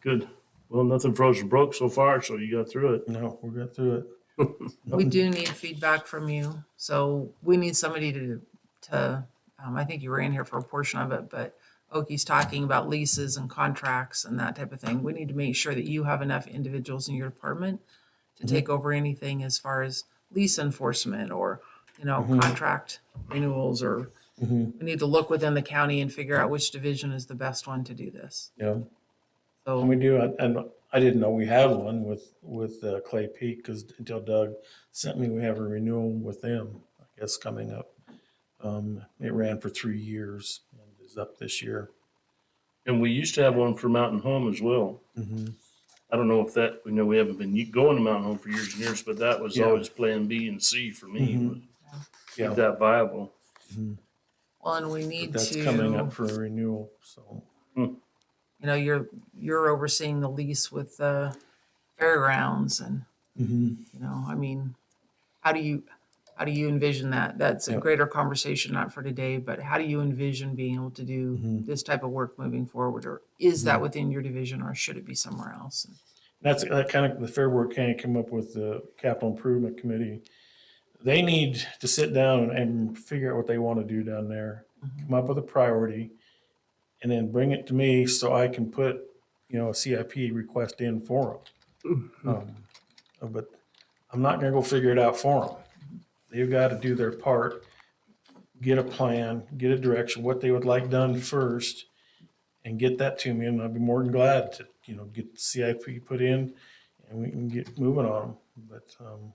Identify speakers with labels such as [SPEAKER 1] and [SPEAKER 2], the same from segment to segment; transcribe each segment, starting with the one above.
[SPEAKER 1] Good. Well, nothing froze or broke so far, so you got through it.
[SPEAKER 2] No, we're good through it.
[SPEAKER 3] We do need feedback from you, so we need somebody to, to, um, I think you were in here for a portion of it, but Oki's talking about leases and contracts and that type of thing. We need to make sure that you have enough individuals in your department to
[SPEAKER 2] Mm-hmm.
[SPEAKER 3] take over anything as far as lease enforcement or, you know,
[SPEAKER 2] Mm-hmm.
[SPEAKER 3] contract renewals or we need to look within the county and figure out which division is the best one to do this.
[SPEAKER 2] Yeah, and
[SPEAKER 3] So,
[SPEAKER 2] we do. and- And I didn't know we had one with with uh, Clay Peak because until Doug sent me, we have a renewal with them. I guess coming up. Um, it ran for three years and is up this year.
[SPEAKER 1] And we used to have one for Mountain Home as well.
[SPEAKER 2] Mm-hmm.
[SPEAKER 1] I don't know if that, we know we haven't been going to Mountain Home for years and years, but that was
[SPEAKER 2] Yeah.
[SPEAKER 1] always plan B and C for me.
[SPEAKER 2] Mhm.
[SPEAKER 1] was
[SPEAKER 2] Yeah,
[SPEAKER 1] Keep that viable.
[SPEAKER 2] mhm.
[SPEAKER 3] well, and we need
[SPEAKER 2] But
[SPEAKER 3] to.
[SPEAKER 2] that's coming up for a renewal. So
[SPEAKER 3] you know, you're, you're overseeing the lease with the fairgrounds and,
[SPEAKER 2] Mhm.
[SPEAKER 3] you know, I mean, how do you, how do you envision that? That's a
[SPEAKER 2] Yep.
[SPEAKER 3] greater conversation, not for today, but how do you envision being able to do
[SPEAKER 2] Mhm.
[SPEAKER 3] this type of work moving forward? Or is that within your division or should it be somewhere else?
[SPEAKER 2] that's that kind of the Fairboard County came up with the capital improvement committee. They need to sit down and figure out what they want to do down there.
[SPEAKER 3] Mhm.
[SPEAKER 2] come up with a priority and then bring it to me so I can put, you know, a CIP request in for them. Um, But I'm not gonna go figure it out for them. They've got to do their part, get a plan, get a direction, what they would like done first and get that to me. And I'd be more than glad to, you know, get the CIP put in and we can get moving on them. But, um,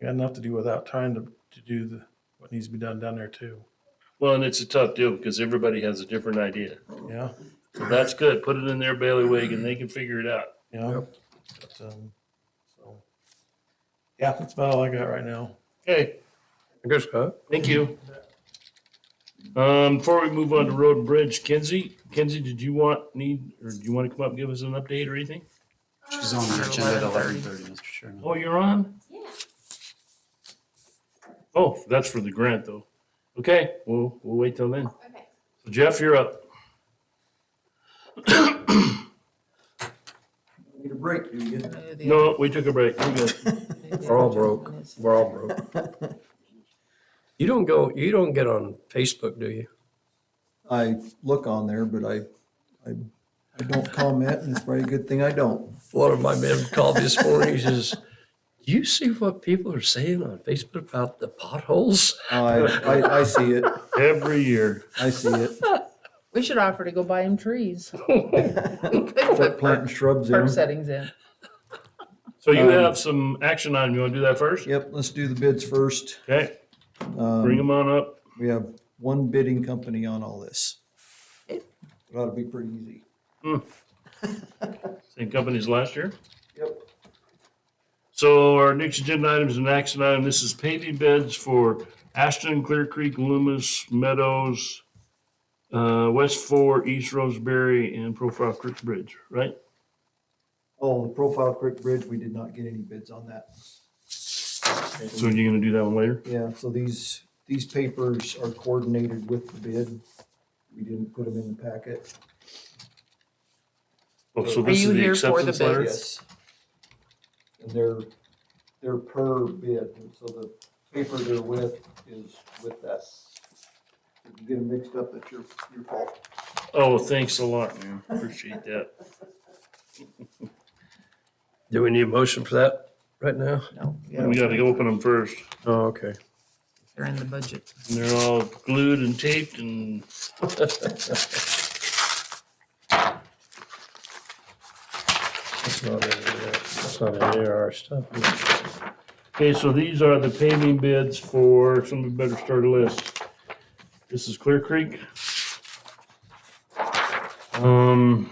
[SPEAKER 2] we got enough to do without trying to, to do the, what needs to be done down there too.
[SPEAKER 1] Well, and it's a tough deal because everybody has a different idea.
[SPEAKER 2] Yeah.
[SPEAKER 1] So that's good. Put it in their bailiwick and they can figure it out.
[SPEAKER 2] Yeah. But, um, so, yeah, that's about all I got right now.
[SPEAKER 1] Okay,
[SPEAKER 4] Good,
[SPEAKER 2] uh,
[SPEAKER 4] Scott.
[SPEAKER 1] thank you. Um, before we move on to road and bridge, Kenzie, Kenzie, did you want, need, or do you want to come up and give us an update or anything?
[SPEAKER 4] She's on the agenda at eleven thirty, Mr. Chairman.
[SPEAKER 1] Oh, you're on?
[SPEAKER 5] Yeah.
[SPEAKER 1] Oh, that's for the grant though. Okay, we'll, we'll wait till then.
[SPEAKER 5] Okay.
[SPEAKER 1] Jeff, you're up.
[SPEAKER 6] Need a break, do you?
[SPEAKER 1] No, we took a break. We're good.
[SPEAKER 4] We're all broke. We're all broke. You don't go, you don't get on Facebook, do you?
[SPEAKER 6] I look on there, but I, I, I don't comment, and it's probably a good thing I don't.
[SPEAKER 4] One of my men called this morning, he says, do you see what people are saying on Facebook about the potholes?
[SPEAKER 6] I, I, I see it,
[SPEAKER 1] Every year.
[SPEAKER 6] I see it.
[SPEAKER 3] We should offer to go buy him trees.
[SPEAKER 6] Start planting shrubs in. 'em.
[SPEAKER 3] settings in.
[SPEAKER 1] So you
[SPEAKER 6] Um,
[SPEAKER 1] have some action item. You want to do that first?
[SPEAKER 6] Yep, let's do the bids first.
[SPEAKER 1] Okay, bring
[SPEAKER 6] Um,
[SPEAKER 1] them on up.
[SPEAKER 6] we have one bidding company on all this. It ought to be pretty easy.
[SPEAKER 1] Same companies last year.
[SPEAKER 6] Yep.
[SPEAKER 1] So our next agenda item is an action item. This is paving beds for Ashton, Clear Creek, Loomis, Meadows, uh, West Four, East Roseberry, and Profile Creek Bridge, right?
[SPEAKER 6] Oh, the Profile Creek Bridge, we did not get any bids on that.
[SPEAKER 1] So you're gonna do that one later?
[SPEAKER 6] Yeah, so these, these papers are coordinated with the bid. We didn't put them in the packet.
[SPEAKER 1] Oh, so
[SPEAKER 3] Are
[SPEAKER 1] this
[SPEAKER 3] you
[SPEAKER 1] is the
[SPEAKER 3] here for the
[SPEAKER 1] acceptance letter?
[SPEAKER 3] bids?
[SPEAKER 6] Yes. And they're, they're per bid, and so the paper they're with is with that. If you get them mixed up, that's your, your fault.
[SPEAKER 1] Oh, thanks a lot, man. Appreciate that.
[SPEAKER 4] Do we need a motion for that right now?
[SPEAKER 3] No, yeah,
[SPEAKER 1] We gotta open them first.
[SPEAKER 4] Oh, okay.
[SPEAKER 3] they're in the budget.
[SPEAKER 1] And they're all glued and taped and
[SPEAKER 4] That's not any of that- that's not any of our stuff.
[SPEAKER 1] Okay, so these are the paving bids for, somebody better start a list. This is Clear Creek. Um.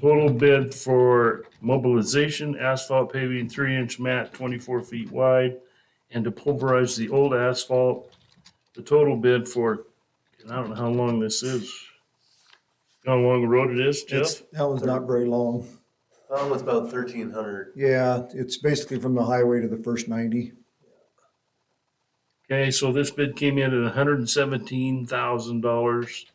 [SPEAKER 1] Total bid for mobilization, asphalt paving, three inch mat, twenty-four feet wide, and to pulverize the old asphalt. The total bid for, and I don't know how long this is. How long the road it is,
[SPEAKER 6] It's-
[SPEAKER 1] Jeff?
[SPEAKER 6] That was not very long.
[SPEAKER 7] Um, it's about thirteen hundred.
[SPEAKER 6] Yeah, it's basically from the highway to the first ninety.
[SPEAKER 1] Okay, so this bid came in at hundred and seventeen thousand dollars.